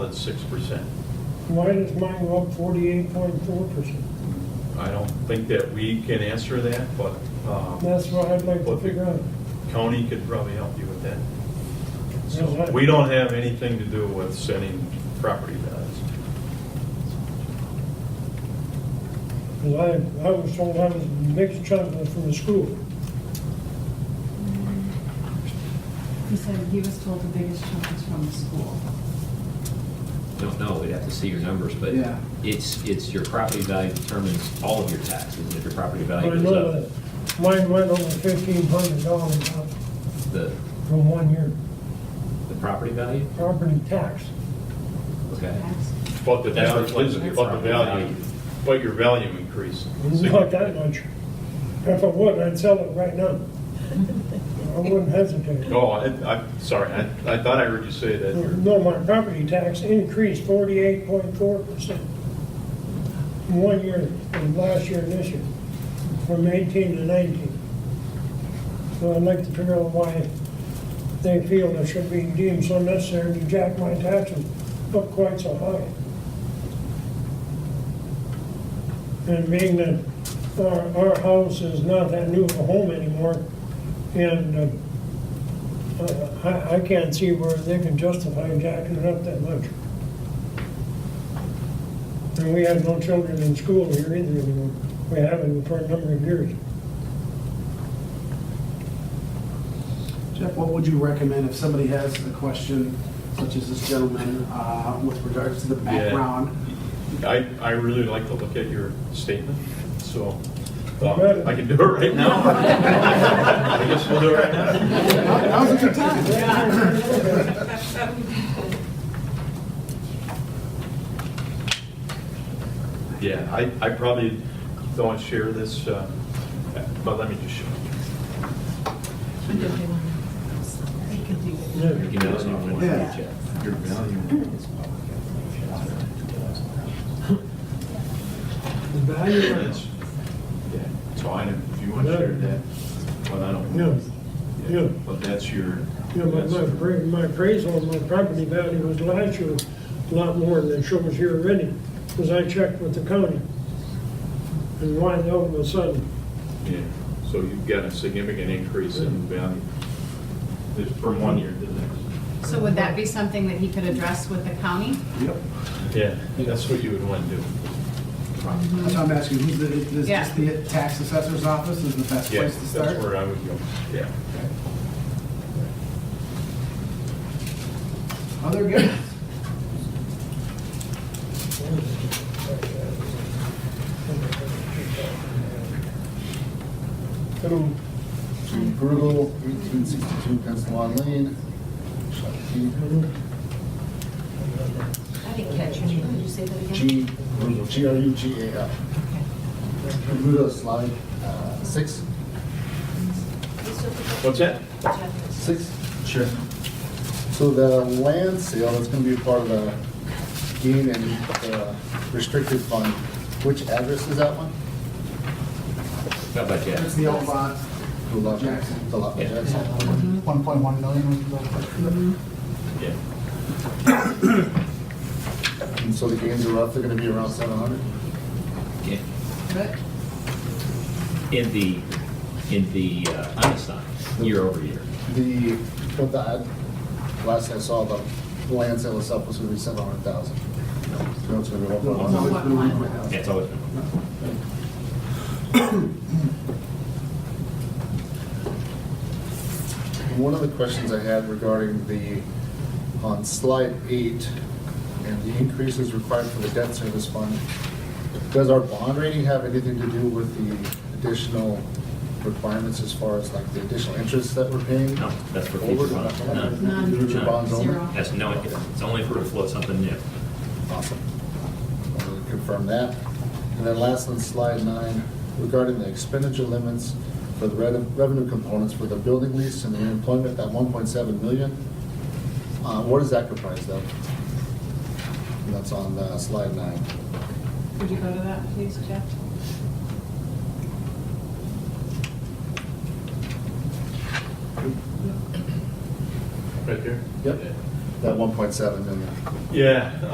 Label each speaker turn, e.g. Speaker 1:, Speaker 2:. Speaker 1: than six percent.
Speaker 2: Why does mine go up forty-eight point four percent?
Speaker 1: I don't think that we can answer that, but um,
Speaker 2: That's what I'd like to
Speaker 1: What the-
Speaker 2: figure out.
Speaker 1: county could probably help you with that.
Speaker 2: Yes,
Speaker 1: So
Speaker 2: I-
Speaker 1: we don't have anything to do with sending property values.
Speaker 2: Cause I, I was told I was the biggest chunk was from the school.
Speaker 3: He said he was told the biggest chunk is from the school.
Speaker 4: Don't know, we'd have to see your numbers, but
Speaker 5: Yeah.
Speaker 4: it's, it's your property value determines all of your taxes, and if your property
Speaker 2: But I
Speaker 4: value
Speaker 2: know
Speaker 4: goes
Speaker 2: that
Speaker 4: up,
Speaker 2: Mine went over fifteen hundred dollars up
Speaker 4: the,
Speaker 2: from one year,
Speaker 4: the property value,
Speaker 2: property tax.
Speaker 4: okay?
Speaker 3: That's-
Speaker 1: But the
Speaker 4: That's
Speaker 1: value,
Speaker 4: reflected in your
Speaker 1: but the
Speaker 4: property
Speaker 1: value,
Speaker 4: value.
Speaker 1: but your value increased.
Speaker 2: Not that much. If I would, I'd sell it right now. I wouldn't hesitate.
Speaker 1: Oh, I, I'm sorry, I, I thought I heard you say that. your-
Speaker 2: No, my property tax increased forty-eight point four percent. One year, from last year and this year, from eighteen to nineteen. So I'd like to figure out why they feel it should be deemed so necessary to jack my taxes up quite so high. And being that our, our house is not that new of a home anymore, and uh, I, I can't see where they can justify jacking it up that much. And we have no children in school here either anymore. We haven't for a number of years.
Speaker 5: Jeff, what would you recommend if somebody has a question, such as this gentleman, uh, with regards to the
Speaker 1: Yeah.
Speaker 5: background?
Speaker 1: I, I really like to look at your statement, so
Speaker 2: Better.
Speaker 1: um, I can do it right now. I guess we'll do it right now.
Speaker 5: That was a good time.
Speaker 1: Yeah, I, I probably don't share this, uh, but let me just show you.
Speaker 3: He could do it.
Speaker 2: Yeah.
Speaker 4: Your value went up.
Speaker 5: Yeah.
Speaker 4: Your value is public.
Speaker 2: The value
Speaker 1: And it's- yeah, It's fine if you want to share that, but I don't.
Speaker 2: No, yeah.
Speaker 1: But that's your.
Speaker 2: you know, my,
Speaker 1: that's-
Speaker 2: my appra- my appraisal on my property value was last year a lot more than shows here already, because I checked with the county. And why all of a sudden,
Speaker 1: Yeah, so you've got a significant increase in value It's from one year to the next.
Speaker 3: So would that be something that he could address with the county?
Speaker 5: Yep.
Speaker 1: Yeah, that's what you would want to do.
Speaker 5: That's what I'm asking, who's the, is
Speaker 3: Yeah.
Speaker 5: just the tax assessor's office is the best
Speaker 1: Yeah,
Speaker 5: place to
Speaker 1: that's
Speaker 5: start?
Speaker 1: where I would go, yeah.
Speaker 5: Okay. Other guests?
Speaker 6: Hello. Jim Pergo, 1862 Councilman Lane.
Speaker 3: I didn't catch your name, could you say that
Speaker 6: G, Grudo, G-R-U-G-A-L. Grudo slide uh, six.
Speaker 1: What's that?
Speaker 6: Six? Sure. So the land sale is going to be part of the gain and uh, restricted fund. Which address is that one?
Speaker 4: How about
Speaker 5: That's
Speaker 4: that?
Speaker 5: the old lot.
Speaker 6: The lot-
Speaker 5: Jackson.
Speaker 6: The lot,
Speaker 4: Yeah.
Speaker 6: Jackson.
Speaker 5: 1.1 million was the...
Speaker 1: Yeah.
Speaker 6: And so the gains are roughly going to be around 700?
Speaker 4: Yeah.
Speaker 5: Okay.
Speaker 4: In the, in the uh, unassigned, year over year,
Speaker 6: The, what the, ad- last I saw, the land sale itself was gonna be seven hundred thousand. So it's gonna be one point
Speaker 5: It's always
Speaker 6: one.
Speaker 5: been 1.1.
Speaker 4: that's always been.
Speaker 6: One of the questions I had regarding the, on slide eight, and the increases required for the debt service fund, does our bond rating have anything to do with the additional requirements as far as like the additional interest that we're paying?
Speaker 4: No, that's for
Speaker 6: Over
Speaker 4: future bonds.
Speaker 6: the-
Speaker 4: None.
Speaker 3: None.
Speaker 6: Future bonds only?
Speaker 3: Zero.
Speaker 4: That's no, it's only for to float something new.
Speaker 6: Awesome. Wanted to Confirm that. And then last on slide nine, regarding the expenditure limits for the re- revenue components for the building lease and the employment, that 1.7 million, uh, what is that comprised of? And that's on uh, slide nine.
Speaker 3: Could you go to that, please, Jeff?
Speaker 1: Right there?
Speaker 6: Yep.
Speaker 1: Yeah.
Speaker 6: that 1.7 million.
Speaker 1: Yeah,